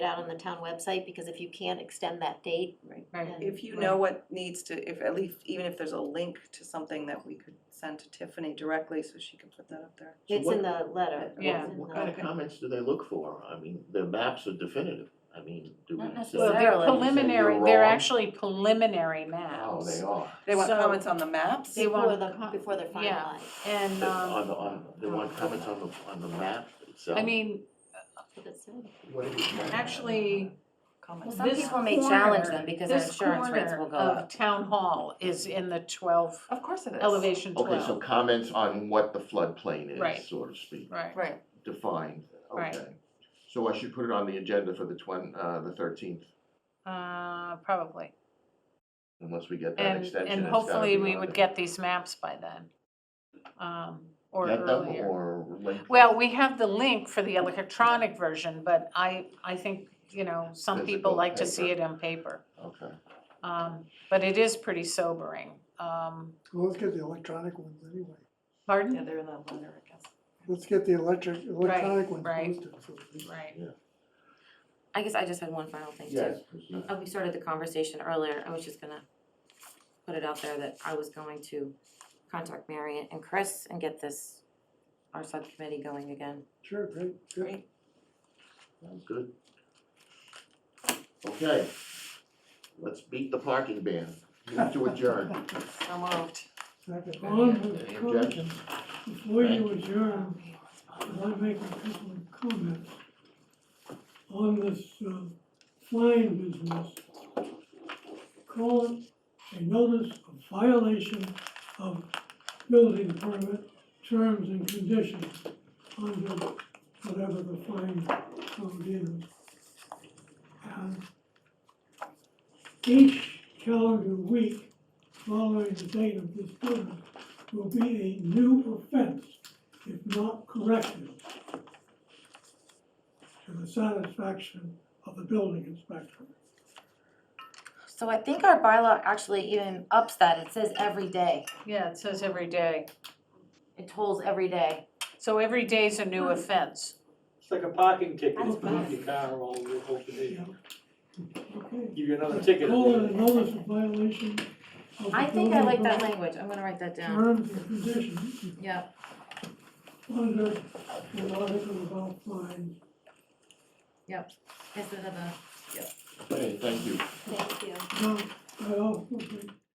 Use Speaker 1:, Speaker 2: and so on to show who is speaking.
Speaker 1: it out on the town website, because if you can't extend that date,
Speaker 2: Right.
Speaker 3: If you know what needs to, if at least, even if there's a link to something that we could send to Tiffany directly so she can put that up there.
Speaker 1: it's
Speaker 4: what-
Speaker 1: in the letter.
Speaker 4: What-
Speaker 2: Yeah.
Speaker 4: What kind of comments do they look for? I mean, the maps are definitive. I mean, do we?
Speaker 2: Not
Speaker 4: say-
Speaker 2: necessarily. They're
Speaker 4: Say you're
Speaker 2: preliminary, they're
Speaker 4: wrong?
Speaker 2: actually preliminary
Speaker 4: Oh,
Speaker 2: maps.
Speaker 4: they are.
Speaker 3: They want
Speaker 2: So-
Speaker 3: comments on the maps?
Speaker 2: They
Speaker 1: Before
Speaker 2: want
Speaker 1: the,
Speaker 2: com-
Speaker 1: before they're
Speaker 2: yeah.
Speaker 1: finalized.
Speaker 2: And,
Speaker 4: They- On, the-
Speaker 2: um,
Speaker 4: on, they want comments on the, on the map itself.
Speaker 2: I mean,
Speaker 1: That's what it said.
Speaker 4: What it is.
Speaker 2: actually,
Speaker 5: Well,
Speaker 3: Comments.
Speaker 5: some
Speaker 2: This
Speaker 5: people may challenge
Speaker 2: corner-
Speaker 5: them because their
Speaker 2: this
Speaker 5: insurance rates
Speaker 2: corner
Speaker 5: will go
Speaker 2: of
Speaker 5: up.
Speaker 2: town hall is in the twelve,
Speaker 3: Of course it is.
Speaker 2: elevation twelve.
Speaker 4: Oh, Okay, so comments on what the floodplain
Speaker 2: Right.
Speaker 4: is, so to speak,
Speaker 2: Right,
Speaker 5: Right,
Speaker 4: defined,
Speaker 2: Right.
Speaker 4: okay. So I should put it on the agenda for the twen, uh, the thirteenth,
Speaker 2: uh, probably.
Speaker 4: unless we get that
Speaker 2: And,
Speaker 4: extension.
Speaker 2: and
Speaker 4: it's gotta
Speaker 2: hopefully
Speaker 4: be
Speaker 2: we
Speaker 4: on
Speaker 2: would
Speaker 4: the-
Speaker 2: get these maps by then. Um, or
Speaker 4: Get them
Speaker 2: earlier.
Speaker 4: or link
Speaker 2: Well,
Speaker 4: them?
Speaker 2: we have the link for the electronic version, but I, I think, you know, some people
Speaker 4: Physical
Speaker 2: like to see it
Speaker 4: paper.
Speaker 2: on paper.
Speaker 4: Okay,
Speaker 2: Um, but it is pretty sobering. Um,
Speaker 6: Well, let's get the electronic ones anyway.
Speaker 3: Yeah,
Speaker 2: pardon?
Speaker 3: they're in that letter, I guess.
Speaker 6: Let's get the electric, electronic ones
Speaker 2: right.
Speaker 6: posted. so at least-
Speaker 2: Right.
Speaker 5: I guess I just had one final thing too.
Speaker 4: yes, proceed.
Speaker 5: Uh, we started the conversation earlier, I was just gonna put it out there that I was going to contact Mary and Chris and get this, our subcommittee going again.
Speaker 6: Sure, great,
Speaker 3: Great.
Speaker 6: good.
Speaker 4: Sounds good. Okay, let's beat the parking ban, move to adjourn.
Speaker 3: So moved.
Speaker 6: Second.
Speaker 4: Any objections?
Speaker 7: Before you adjourn, I want to make a couple of comments on this uh, fine business. Call it a notice of violation of building permit terms and conditions under whatever the fine code is. And Each calendar week following the date of this permit will be a new offense if not corrected to the satisfaction of the building inspector.
Speaker 5: So I think our bylaw actually even ups that, it says every day,
Speaker 2: Yeah, it says every day.
Speaker 5: it tolls every day.
Speaker 2: So every day's a new offense.
Speaker 7: It's like a parking ticket,
Speaker 5: That's
Speaker 7: if you leave
Speaker 5: bad.
Speaker 7: your car all the whole day,
Speaker 6: Okay.
Speaker 7: give you another ticket.
Speaker 6: Call it a notice of violation of the
Speaker 5: I think I like
Speaker 6: building
Speaker 5: that language, I'm gonna write that down,
Speaker 6: Terms and conditions
Speaker 5: yeah.
Speaker 6: under the article about fines.
Speaker 5: Instead of the
Speaker 4: Okay, thank you.
Speaker 1: Thank you.
Speaker 6: Now, I also think